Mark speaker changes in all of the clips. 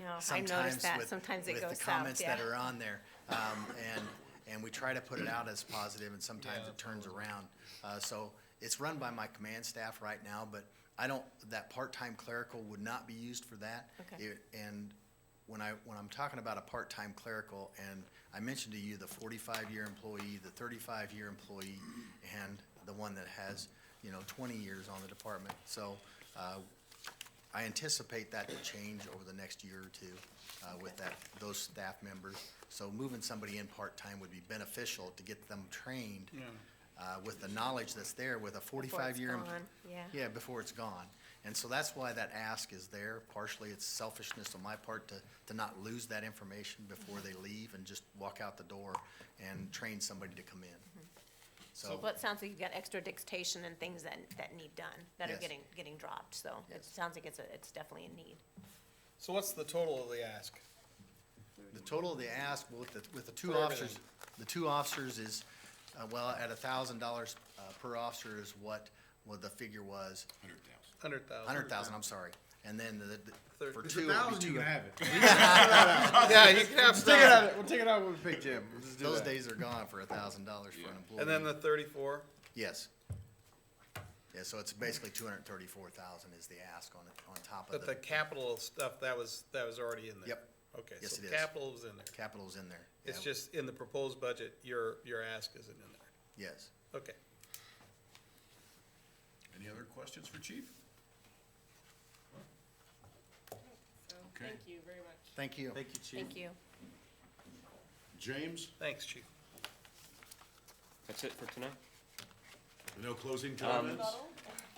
Speaker 1: know, I
Speaker 2: sometimes
Speaker 1: noticed that,
Speaker 2: with-
Speaker 1: sometimes it
Speaker 2: With
Speaker 1: goes
Speaker 2: the
Speaker 1: south,
Speaker 2: comments
Speaker 1: yeah.
Speaker 2: that are on there. Um, And, and we try to put it out as positive, and sometimes it turns around. Uh, So it's run by my command staff right now, but I don't, that part-time clerical would not be used for that.
Speaker 1: Okay.
Speaker 2: It- And when I, when I'm talking about a part-time clerical, and I mentioned to you the forty-five year employee, the thirty-five year employee, and the one that has, you know, twenty years on the department. So uh, I anticipate that will change over the next year or two uh, with that, those staff members. So moving somebody in part-time would be beneficial to get them trained uh, with the knowledge that's there with a forty-five-year.
Speaker 1: gone, yeah.
Speaker 2: Yeah, before it's gone. And so that's why that ask is there. Partially, it's selfishness on my part to, to not lose that information before they leave and just walk out the door and train somebody to come
Speaker 1: Mm-hmm.
Speaker 2: in. So,
Speaker 1: Well, it sounds like you've got extra dictation and things that, that need done, that are
Speaker 2: Yes.
Speaker 1: getting, getting dropped, so it
Speaker 2: Yes.
Speaker 1: sounds like it's, a it's definitely a need.
Speaker 3: So what's the total of the ask?
Speaker 2: the total of the ask with the, with the two
Speaker 3: For
Speaker 2: officers,
Speaker 3: everything.
Speaker 2: the two officers is, uh, well, at a thousand dollars uh, per officer is what, what the figure was.
Speaker 3: Hundred thousand.
Speaker 2: Hundred thousand, I'm sorry. And then the- the,
Speaker 3: Thirty.
Speaker 2: for
Speaker 4: It's
Speaker 2: two,
Speaker 4: a
Speaker 2: it'd be
Speaker 4: thousand,
Speaker 2: two-
Speaker 4: you can have it.
Speaker 3: Oh, Yeah, you can have
Speaker 4: Take
Speaker 3: some.
Speaker 4: it out, we'll take it out when we pick Jim. We'll just do
Speaker 2: those
Speaker 4: that.
Speaker 2: days are gone for a thousand dollars for an employee.
Speaker 3: And then the thirty-four,
Speaker 2: Yes. Yeah, so it's basically two hundred and thirty-four thousand is the ask on, it- on top
Speaker 3: but
Speaker 2: of the
Speaker 3: the capital stuff, that was, that was already in there.
Speaker 2: Yep.
Speaker 3: Okay,
Speaker 2: Yes,
Speaker 3: so
Speaker 2: it is.
Speaker 3: capital was in there.
Speaker 2: capital's in there.
Speaker 3: It's
Speaker 2: Yeah.
Speaker 3: just in the proposed budget, your, your ask isn't in there.
Speaker 2: Yes.
Speaker 3: Okay.
Speaker 5: Any other questions for Chief? Okay,
Speaker 6: Thank you very much.
Speaker 2: Thank you.
Speaker 4: Thank you, Chief.
Speaker 1: Thank you.
Speaker 5: James,
Speaker 3: Thanks, chief.
Speaker 7: That's it for tonight.
Speaker 5: no
Speaker 6: Um,
Speaker 5: closing comments?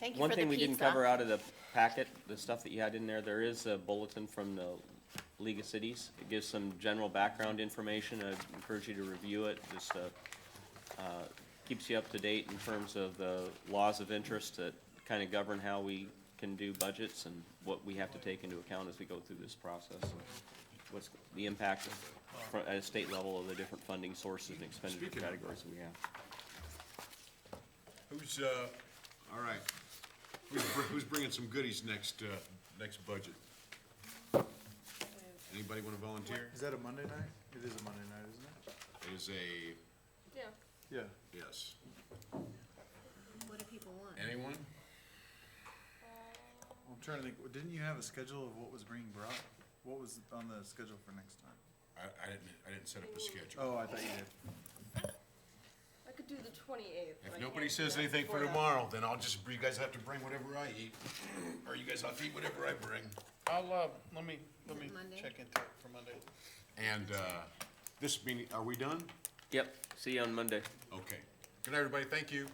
Speaker 1: Thank you for the
Speaker 7: One
Speaker 1: pizza.
Speaker 7: thing we didn't cover uh, out of the packet, the stuff that you had in there, there is a bulletin from the League of Cities. It gives some general background information. I encourage you to review it. Just, uh, uh, keeps you up to date in terms of the laws of interest that kind of govern how we can do budgets and what we have to take into account as we go through this process. What's the impact fr- at a state level of the different funding sources and expenditure
Speaker 5: Speaking of-
Speaker 7: categories that we have.
Speaker 5: Who's, uh, all right, who's, br- who's bringing some goodies next, uh, next budget? Anybody wanna volunteer?
Speaker 4: Is that a Monday night? It is a Monday night, isn't it?
Speaker 5: It is a,
Speaker 6: Yeah.
Speaker 4: Yeah.
Speaker 5: yes,
Speaker 6: What do people want?
Speaker 5: anyone?
Speaker 4: I'm trying to think, didn't you have a schedule of what was being brought? What was on the schedule for next time?
Speaker 5: I, I didn't, I didn't set up a schedule.
Speaker 4: Oh, I thought you did.
Speaker 6: I could do the twenty-eighth.
Speaker 5: If nobody says anything for tomorrow, then I'll just, you guys have to bring whatever I eat, or you guys have to eat whatever I bring.
Speaker 3: I'll, uh, let me, let me
Speaker 6: Monday?
Speaker 3: check into it for Monday.
Speaker 5: And, uh, this meeting, are we done?
Speaker 7: Yep, see you on Monday.
Speaker 5: Okay. Good night, everybody, thank you.